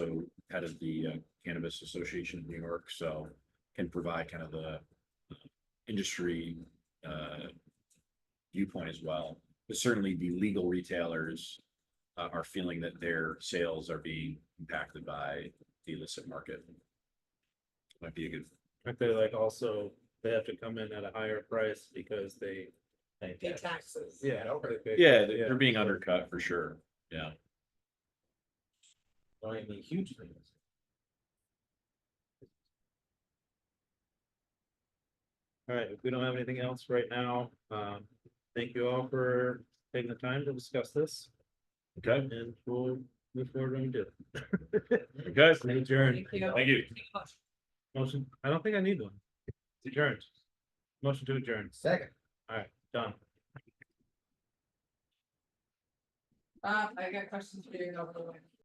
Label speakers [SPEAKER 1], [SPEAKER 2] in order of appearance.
[SPEAKER 1] head of the uh, Cannabis Association of New York, so can provide kind of the industry uh, viewpoint as well. But certainly the legal retailers uh, are feeling that their sales are being impacted by the illicit market. Might be a good,
[SPEAKER 2] Aren't they like also, they have to come in at a higher price because they.
[SPEAKER 3] Pay taxes.
[SPEAKER 2] Yeah. they pay-
[SPEAKER 1] yeah, they're they're being undercut for sure, yeah.
[SPEAKER 4] I mean, huge things.
[SPEAKER 2] All right, if we don't have anything else right now, um, thank you all for taking the time to discuss this.
[SPEAKER 1] Okay.
[SPEAKER 2] And we'll move forward when we do.
[SPEAKER 1] Okay,
[SPEAKER 2] Adjourn.
[SPEAKER 1] thank you.
[SPEAKER 2] Motion, I don't think I need one. Adjourned. Motion to adjourn.
[SPEAKER 4] Second.
[SPEAKER 2] All right, done.
[SPEAKER 3] Um, I got questions for you over the way.